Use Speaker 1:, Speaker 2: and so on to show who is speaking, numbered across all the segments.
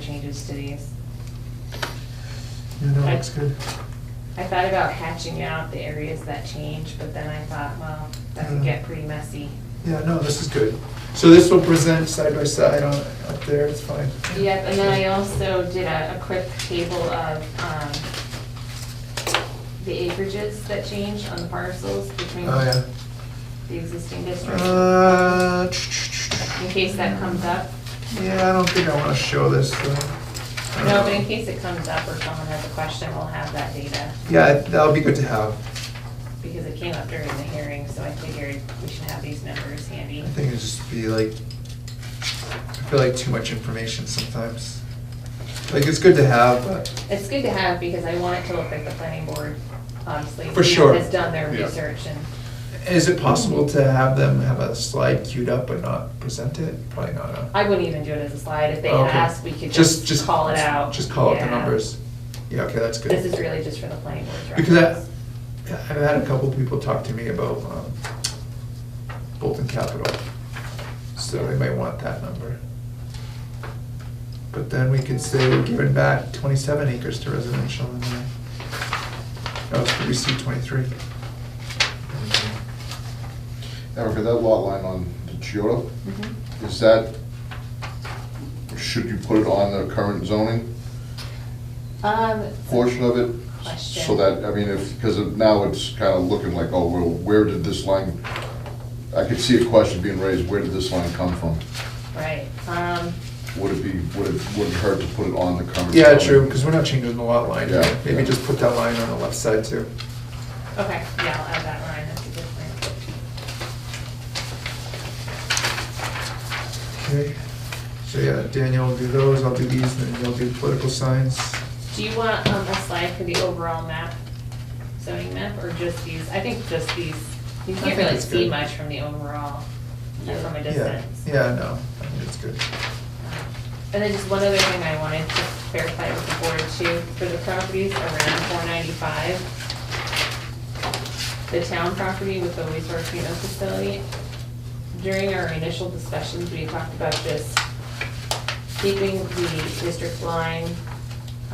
Speaker 1: changes to these.
Speaker 2: Yeah, that looks good.
Speaker 1: I thought about hatching out the areas that change, but then I thought, well, that could get pretty messy.
Speaker 2: Yeah, no, this is good. So this will present side by side on, up there, it's fine.
Speaker 1: Yep, and then I also did a, a quick table of, um, the acreages that changed on the parcels between
Speaker 2: Oh,
Speaker 1: the existing
Speaker 2: yeah.
Speaker 1: district,
Speaker 2: Uh,
Speaker 1: in case that comes up.
Speaker 2: yeah, I don't think I wanna show this, though.
Speaker 1: No, but in case it comes up or someone has a question, we'll have that data,
Speaker 2: Yeah, that'll be good to have.
Speaker 1: because it came up during the hearing, so I figured we should have these numbers handy.
Speaker 2: I think it'd just be like, I feel like too much information sometimes. Like, it's good to have, but,
Speaker 1: It's good to have, because I want it to look like the planning board, obviously.
Speaker 2: For sure.
Speaker 1: Has done their
Speaker 3: Yeah.
Speaker 1: research and,
Speaker 2: is it possible to have them have a slide queued up but not present it? Probably not, huh?
Speaker 1: I wouldn't even do it as a slide, if they
Speaker 2: Oh, Okay.
Speaker 1: asked, we could just call it out.
Speaker 2: Just call out the
Speaker 1: Yeah.
Speaker 2: numbers. Yeah, okay, that's good.
Speaker 1: This is really just for the planning board's
Speaker 2: Because I,
Speaker 1: reference.
Speaker 2: I've had a couple people talk to me about um, Bolton Capital, so they might want that number. But then we could say we're giving back twenty-seven acres to residential and then, oh, we see twenty-three.
Speaker 3: Erica, that lot line on the Chiota,
Speaker 1: Mhm.
Speaker 3: is that, should you put it on the current zoning
Speaker 1: Um,
Speaker 3: portion of it? So
Speaker 1: Question.
Speaker 3: that, I mean, if, because now it's kind of looking like, oh, well, where did this line, I could see a question being raised, where did this line come from?
Speaker 1: right, um,
Speaker 3: Would it be, would it, would it hurt to put it on the current?
Speaker 2: Yeah,
Speaker 3: zoning?
Speaker 2: true, because we're not changing the lot line,
Speaker 3: Yeah,
Speaker 2: maybe
Speaker 3: yeah.
Speaker 2: just put that line on the left side too.
Speaker 1: okay, yeah, I'll add that line, that's a good point.
Speaker 2: Okay, so yeah, Daniel will do those, I'll do these, and then you'll do political signs.
Speaker 1: Do you want um, a slide for the overall map, zoning map, or just these? I think just these, you can't
Speaker 2: I think
Speaker 1: really
Speaker 2: it's
Speaker 1: see
Speaker 2: good.
Speaker 1: much from the overall, uh,
Speaker 3: Yeah.
Speaker 1: from a
Speaker 2: Yeah,
Speaker 1: distance.
Speaker 2: yeah, no, I think that's good.
Speaker 1: And then just one other thing I wanted to clarify with the board too, for the properties around four ninety-five, the town property with the wastewater treatment facility, during our initial discussions, we talked about just keeping the district line,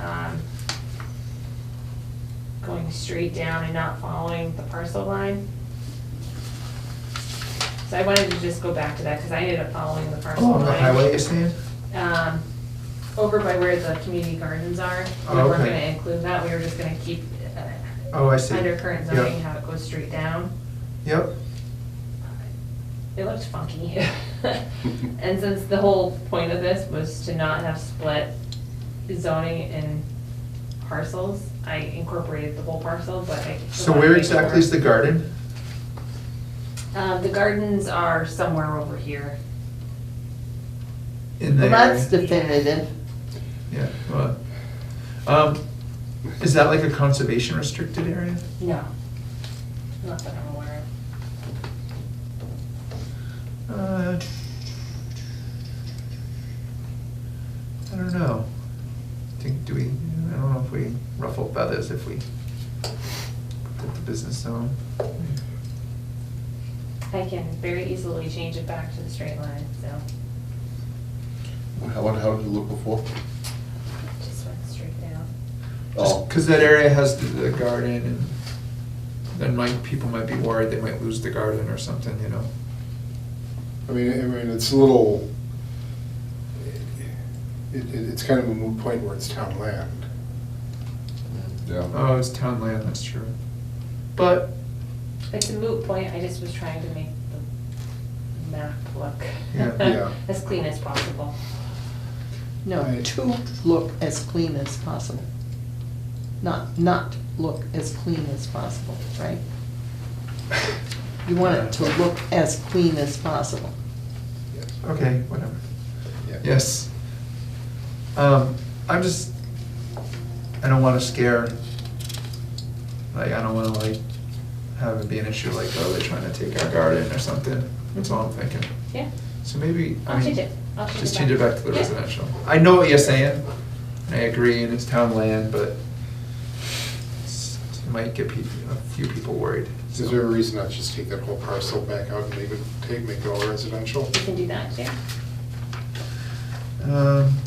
Speaker 1: um, going straight down and not following the parcel line. So I wanted to just go back to that, because I ended up following the parcel
Speaker 2: Oh,
Speaker 1: line
Speaker 2: on the highway, you're saying?
Speaker 1: um, over by where the community gardens are. We
Speaker 2: Oh,
Speaker 1: weren't
Speaker 2: okay.
Speaker 1: gonna include that, we were just gonna keep uh,
Speaker 2: Oh, I see.
Speaker 1: under current
Speaker 2: Yep.
Speaker 1: zoning, how it goes straight down. Uh,
Speaker 2: Yep,
Speaker 1: It looked funky. And since the whole point of this was to not have split zoning in parcels, I incorporated the whole parcel, but I.
Speaker 2: so where exactly is the garden?
Speaker 1: Uh, the gardens are somewhere over here.
Speaker 2: In the
Speaker 4: Well, that's
Speaker 2: area?
Speaker 4: definitive.
Speaker 2: Yeah, well, um, is that like a conservation restricted area?
Speaker 1: No. Not that I'm aware of.
Speaker 2: Uh, I don't know. Think, do we, I don't know if we ruffle feathers if we put the business zone.
Speaker 1: I can very easily change it back to the straight line, so
Speaker 3: How, how did it look before?
Speaker 1: it just went straight down.
Speaker 3: Oh.
Speaker 2: Just cause that area has the, the garden and then might, people might be worried they might lose the garden or something, you know?
Speaker 5: I mean, I mean, it's a little, it, it- it's kind of a moot point where it's town land.
Speaker 3: Yeah.
Speaker 2: Oh, it's town land, that's true. But,
Speaker 1: It's a moot point, I just was trying to make the map
Speaker 2: Yeah.
Speaker 1: look
Speaker 5: Yeah.
Speaker 1: as clean as possible.
Speaker 4: No,
Speaker 5: Right.
Speaker 4: to look as clean as possible. Not, not look as clean as possible, right? You want it to look as clean as possible.
Speaker 2: okay, whatever. Yes. Um, I'm just, I don't wanna scare, like, I don't wanna like, have it be an issue like, oh, they're trying to take our garden or something. That's all I'm thinking.
Speaker 1: Yeah,
Speaker 2: So maybe, I
Speaker 1: I'll change
Speaker 2: mean,
Speaker 1: it, I'll change it back.
Speaker 2: just change it back to the
Speaker 1: Yeah.
Speaker 2: residential. I know what you're saying, and I agree, and it's town land, but it's- it might get people, a few people worried.
Speaker 5: Is there a reason not just take that whole parcel back out and leave it, take, make it all residential?
Speaker 1: You can do that, yeah.
Speaker 2: Um,